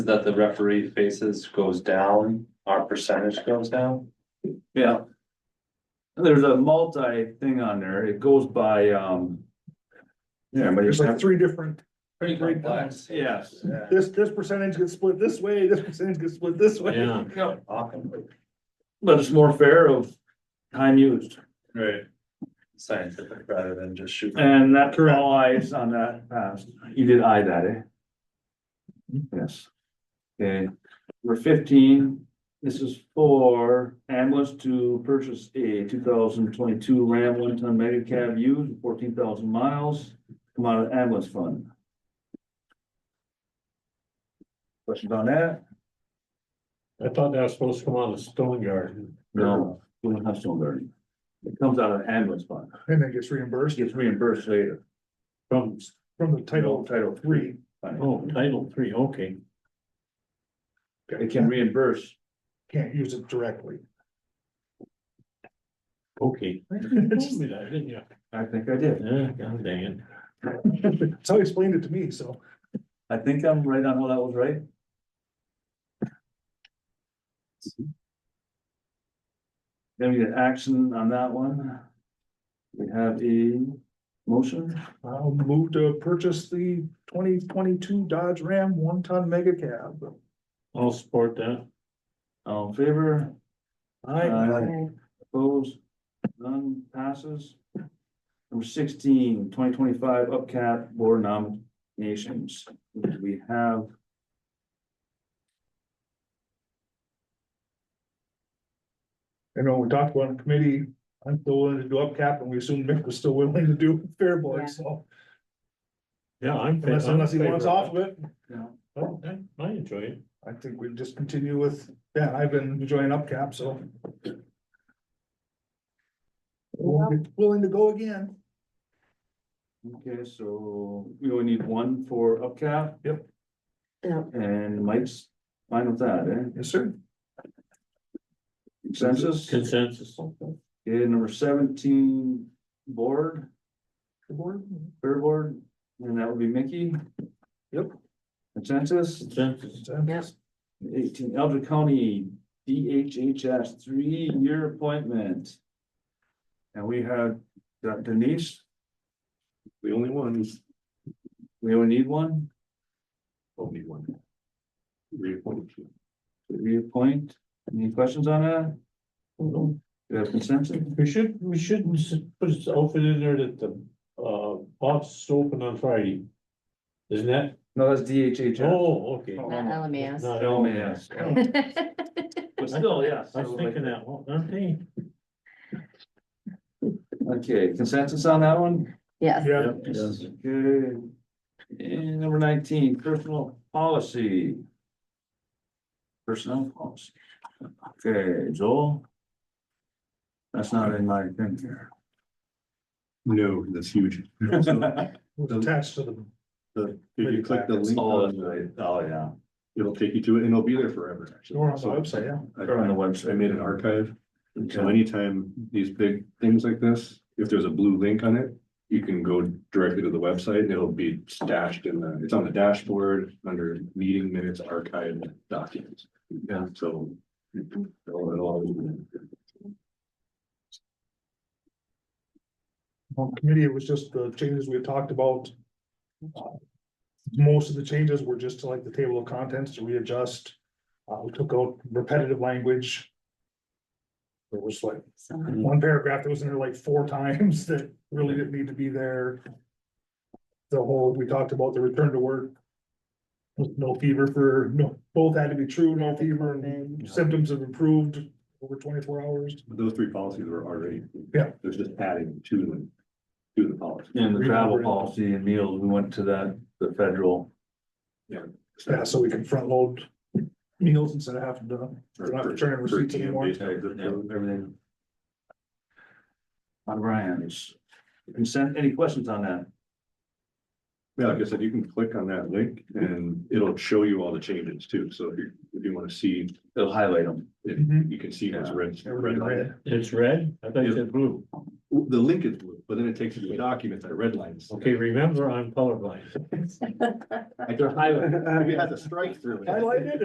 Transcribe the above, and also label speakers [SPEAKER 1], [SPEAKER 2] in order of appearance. [SPEAKER 1] that the referee faces goes down, our percentage goes down?
[SPEAKER 2] Yeah. There's a multi thing on there, it goes by, um. Yeah, but
[SPEAKER 3] There's like
[SPEAKER 2] it's,
[SPEAKER 3] three different,
[SPEAKER 1] Pretty complex.
[SPEAKER 2] yes,
[SPEAKER 3] this, this percentage gets split this way, this percentage gets split this way.
[SPEAKER 4] Yeah.
[SPEAKER 1] Often
[SPEAKER 2] but it's more fair of time used,
[SPEAKER 4] Right.
[SPEAKER 1] scientific rather than just shooting.
[SPEAKER 2] and that's all eyes on that pass, you did eye that, eh? Yes. Okay, number fifteen, this is for ambulance to purchase a two thousand twenty-two Ram one-ton mega cab used, fourteen thousand miles, come out of ambulance fund. Questions on that?
[SPEAKER 4] I thought that was supposed to come out of stone yard.
[SPEAKER 2] No, we don't have stone garden. It comes out of ambulance fund,
[SPEAKER 3] And it gets reimbursed
[SPEAKER 2] it gets reimbursed later.
[SPEAKER 4] From,
[SPEAKER 3] from the title,
[SPEAKER 2] Title
[SPEAKER 3] three.
[SPEAKER 4] oh, title three, okay.
[SPEAKER 2] It can reimburse,
[SPEAKER 3] Can't use it directly.
[SPEAKER 4] Okay. Yeah,
[SPEAKER 2] I think I did,
[SPEAKER 4] god dang it.
[SPEAKER 3] That's how he explained it to me, so.
[SPEAKER 2] I think I'm right on how that was right. Then we get action on that one. We have a motion,
[SPEAKER 3] I'll move to purchase the twenty twenty-two Dodge Ram one-ton mega cab.
[SPEAKER 4] I'll support that.
[SPEAKER 2] all in favor, Aye.
[SPEAKER 3] I,
[SPEAKER 2] opposed, none passes. Number 16, 2025 upcap board nominations, we have.
[SPEAKER 3] I know we talked about in committee, I'm still willing to do up cap and we assumed Mick was still willing to do Fairborn, so.
[SPEAKER 4] Yeah, I'm.
[SPEAKER 3] Unless, unless he wants off of it,
[SPEAKER 4] Oh, I- I enjoy it.
[SPEAKER 3] I think we just continue with, yeah, I've been enjoying up cap, so. Willing to- Willing to go again.
[SPEAKER 2] Okay, so we only need one for upcap.
[SPEAKER 3] Yep.
[SPEAKER 5] Yeah.
[SPEAKER 2] And Mike's fine with that, eh?
[SPEAKER 3] Yes, sir.
[SPEAKER 2] Consensus? Okay,
[SPEAKER 4] Consensus.
[SPEAKER 2] number seventeen, board,
[SPEAKER 3] The board?
[SPEAKER 2] fair board, and that would be Mickey.
[SPEAKER 3] Yep.
[SPEAKER 2] Consensus,
[SPEAKER 4] Consensus.
[SPEAKER 5] Yep.
[SPEAKER 2] eighteen, Elder County DHHS three-year appointment. And we have Denise,
[SPEAKER 4] The only ones.
[SPEAKER 2] we only need one,
[SPEAKER 4] Only one. Reappointed.
[SPEAKER 2] to reappoint, any questions on that?
[SPEAKER 4] No.
[SPEAKER 2] Do you have consensus?
[SPEAKER 4] We should, we shouldn't s- put it open in there that the, uh, office is open on Friday. Isn't that?
[SPEAKER 2] No, that's DHHS.
[SPEAKER 4] Oh, okay.
[SPEAKER 5] Not LMAS.
[SPEAKER 4] Not
[SPEAKER 2] Oh,
[SPEAKER 4] only
[SPEAKER 2] man.
[SPEAKER 4] us.
[SPEAKER 2] But still, yeah.
[SPEAKER 4] I was
[SPEAKER 2] so, like-
[SPEAKER 4] thinking that, one, aren't they?
[SPEAKER 2] Okay, consensus on that one?
[SPEAKER 5] Yes,
[SPEAKER 3] Yeah.
[SPEAKER 2] Okay. And number nineteen, personal policy. Personnel policy. Okay, Joel? That's not in my thing here.
[SPEAKER 6] No, that's huge. So
[SPEAKER 3] was attached to the.
[SPEAKER 6] the- If you click the link,
[SPEAKER 2] Oh,
[SPEAKER 6] on
[SPEAKER 2] that's
[SPEAKER 6] it,
[SPEAKER 2] right. Oh, yeah.
[SPEAKER 6] it'll take you to it and it'll be there forever, actually.
[SPEAKER 3] Or on the
[SPEAKER 6] So
[SPEAKER 3] website, yeah.
[SPEAKER 6] I-
[SPEAKER 2] Or on the
[SPEAKER 6] I
[SPEAKER 2] website.
[SPEAKER 6] made an archive, so anytime these big things like this, if there's a blue link on it, you can go directly to the website and it'll be stashed in the, it's on the dashboard under meeting minutes archived documents. Yeah. So. it'll- it'll always be there.
[SPEAKER 3] On committee, it was just the changes we had talked about. Most of the changes were just to like the table of contents to readjust. Uh, we took out repetitive language. There was like
[SPEAKER 5] so
[SPEAKER 3] one paragraph that was in there like four times that really didn't need to be there. The whole, we talked about the return to work. With no fever for, no, both had to be true, no fever and symptoms have improved over twenty-four hours.
[SPEAKER 6] But Those three policies were already.
[SPEAKER 3] Yeah.
[SPEAKER 6] There's just adding to them, to the policy.
[SPEAKER 2] And the travel policy and meals, we went to that, the federal.
[SPEAKER 3] Yeah, so we can front load meals instead of having to. They're not returning
[SPEAKER 6] For-
[SPEAKER 3] receipts
[SPEAKER 6] for TM
[SPEAKER 3] anymore.
[SPEAKER 6] based on zip code.
[SPEAKER 2] Everything. On Brian's. Consent, any questions on that?
[SPEAKER 6] Yeah, like I said, you can click on that link and it'll show you all the changes too, so if you, if you wanna see,
[SPEAKER 2] They'll highlight them.
[SPEAKER 6] you can see what's red.
[SPEAKER 3] Everything red.
[SPEAKER 4] It's red? I thought you said blue.
[SPEAKER 6] The link is blue, but then it takes you to a document that redlines.
[SPEAKER 4] Okay, remember, I'm colorblind.
[SPEAKER 6] I tried- I had to strike through it.
[SPEAKER 3] I like it.